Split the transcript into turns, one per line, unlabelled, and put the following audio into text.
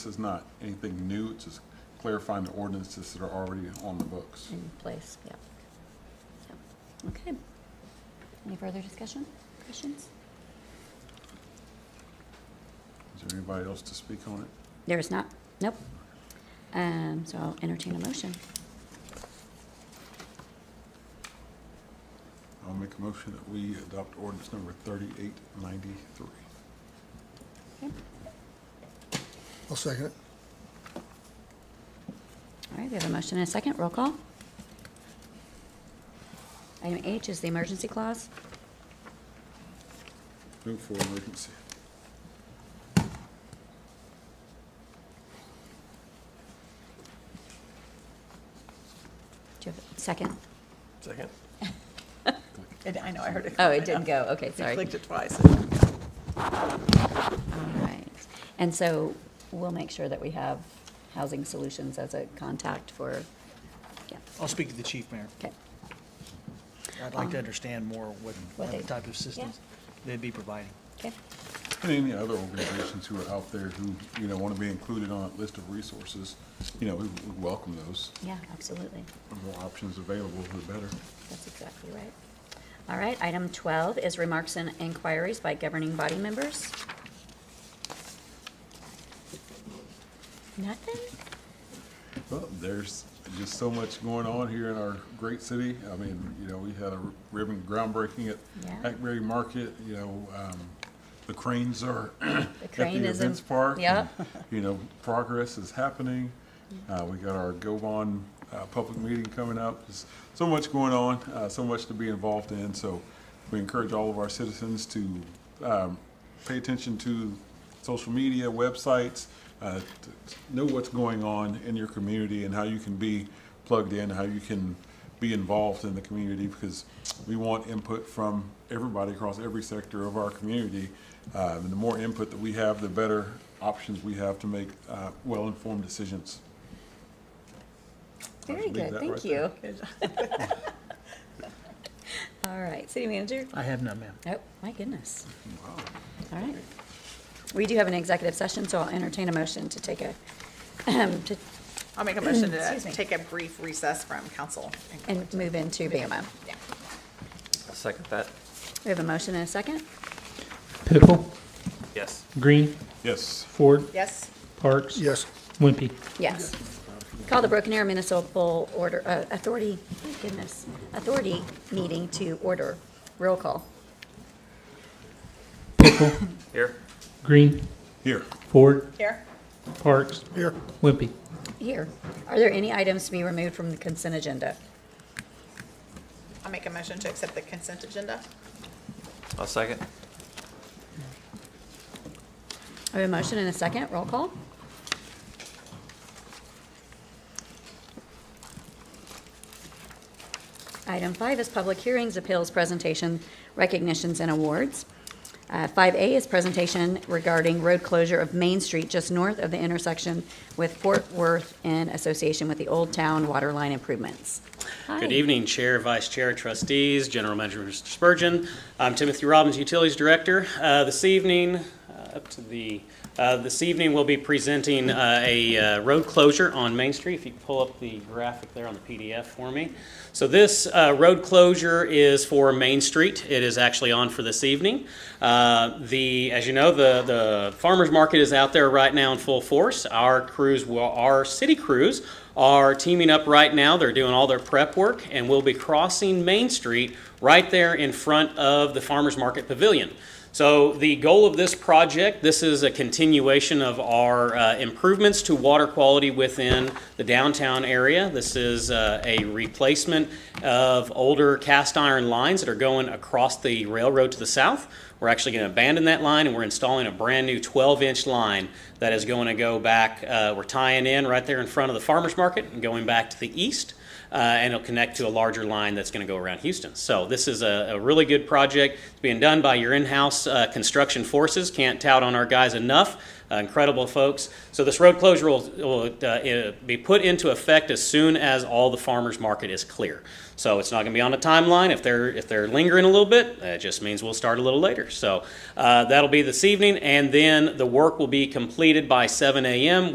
This is not anything new, it's just clarifying the ordinances that are already on the books.
in place, yeah.
Yeah. Okay. Any further discussion, questions?
Is there anybody else to speak on it?
There is not, nope. Um, so I'll entertain a motion.
I'll make a motion that we adopt ordinance number 3893.
Okay.
I'll second it.
All right, we have a motion and a second, roll call. Item H is the emergency clause.
Move for emergency.
Do you have a second?
Second.
It- I know, I heard it.
Oh, it didn't go, okay,
I
sorry.
clicked it twice.
All right. And so we'll make sure that we have Housing Solutions as a contact for, yeah,
I'll speak to the chief, Mayor.
okay.
I'd like to
Um,
understand more what,
What
what
they-
type of systems they'd be providing.
Okay,
And any other organizations who are out there who, you know, want to be included on that list of resources, you know, we we welcome those.
yeah, absolutely.
The more options available, the better.
That's exactly right. All right, item 12 is remarks and inquiries by governing body members. Nothing?
Well, there's just so much going on here in our great city. I mean, you know, we had a ribbon groundbreaking
Yeah.
at Hackberry Market, you know, um, the cranes are at the
crane is in-
events park.
yeah.
and, You know, progress is happening. Uh, we got our Govan, uh, public meeting coming up. There's so much going on, uh, so much to be involved in. So we encourage all of our citizens to, um, pay attention to social media, websites, uh, to to know what's going on in your community and how you can be plugged in, how you can be involved in the community because we want input from everybody across every sector of our community. Uh, and the more input that we have, the better options we have to make, uh, well-informed decisions.
Very
should leave
good,
that
thank
right
you.
there.
All right, city manager?
I have none, ma'am.
Oh, my goodness. All right. We do have an executive session, so I'll entertain a motion to take a, to,
I'll make a motion to
Excuse me.
take a brief recess from council.
and move into BMO.
Yeah.
I'll second that.
We have a motion and a second?
Pickle,
Yes.
Green,
Yes.
Ford,
Yes,
Parks.
Yes.
Wimpy.
Yes. Call the Broken Arrow Municipal Order, uh, Authority, my goodness, Authority meeting to order. Roll call.
Pickle,
Here?
Green,
Here.
Ford,
here?
Parks,
Here.
Wimpy.
Here. Are there any items to be removed from the consent agenda?
I'll make a motion to accept the consent agenda.
I'll second.
I have a motion and a second. Roll call. Item five is public hearings, appeals, presentation, recognitions, and awards. Uh, 5A is presentation regarding road closure of Main Street just north of the intersection with Fort Worth in association with the Old Town Water Line Improvements. Hi.
Good evening, Chair, Vice Chair, Trustees, General Manager Mr. Spurgeon. I'm Timothy Robbins, Utilities Director. Uh, This evening, uh, up to the, uh, this evening, we'll be presenting uh, a uh, road closure on Main Street. If you could pull up the graphic there on the PDF for me. So this uh, road closure is for Main Street. It is actually on for this evening. Uh, The, as you know, the the farmer's market is out there right now in full force. Our crews, will- our city crews are teaming up right now. They're doing all their prep work, and we'll be crossing Main Street right there in front of the Farmers Market Pavilion. So the goal of this project, this is a continuation of our uh, improvements to water quality within the downtown area. This is uh, a replacement of older cast iron lines that are going across the railroad to the south. We're actually going to abandon that line and we're installing a brand new 12 inch line that is going to go back. Uh, we're tying in right there in front of the farmers market and going back to the east. Uh, and it'll connect to a larger line that's going to go around Houston. So this is a, a really good project. It's being done by your in-house uh, construction forces. Can't tout on our guys enough. Uh, incredible folks. So this road closure will, will uh, uh, be put into effect as soon as all the farmers market is clear. So it's not going to be on a timeline. If they're if they're lingering a little bit, that just means we'll start a little later. So uh, that'll be this evening, and then the work will be completed by 7 a.m.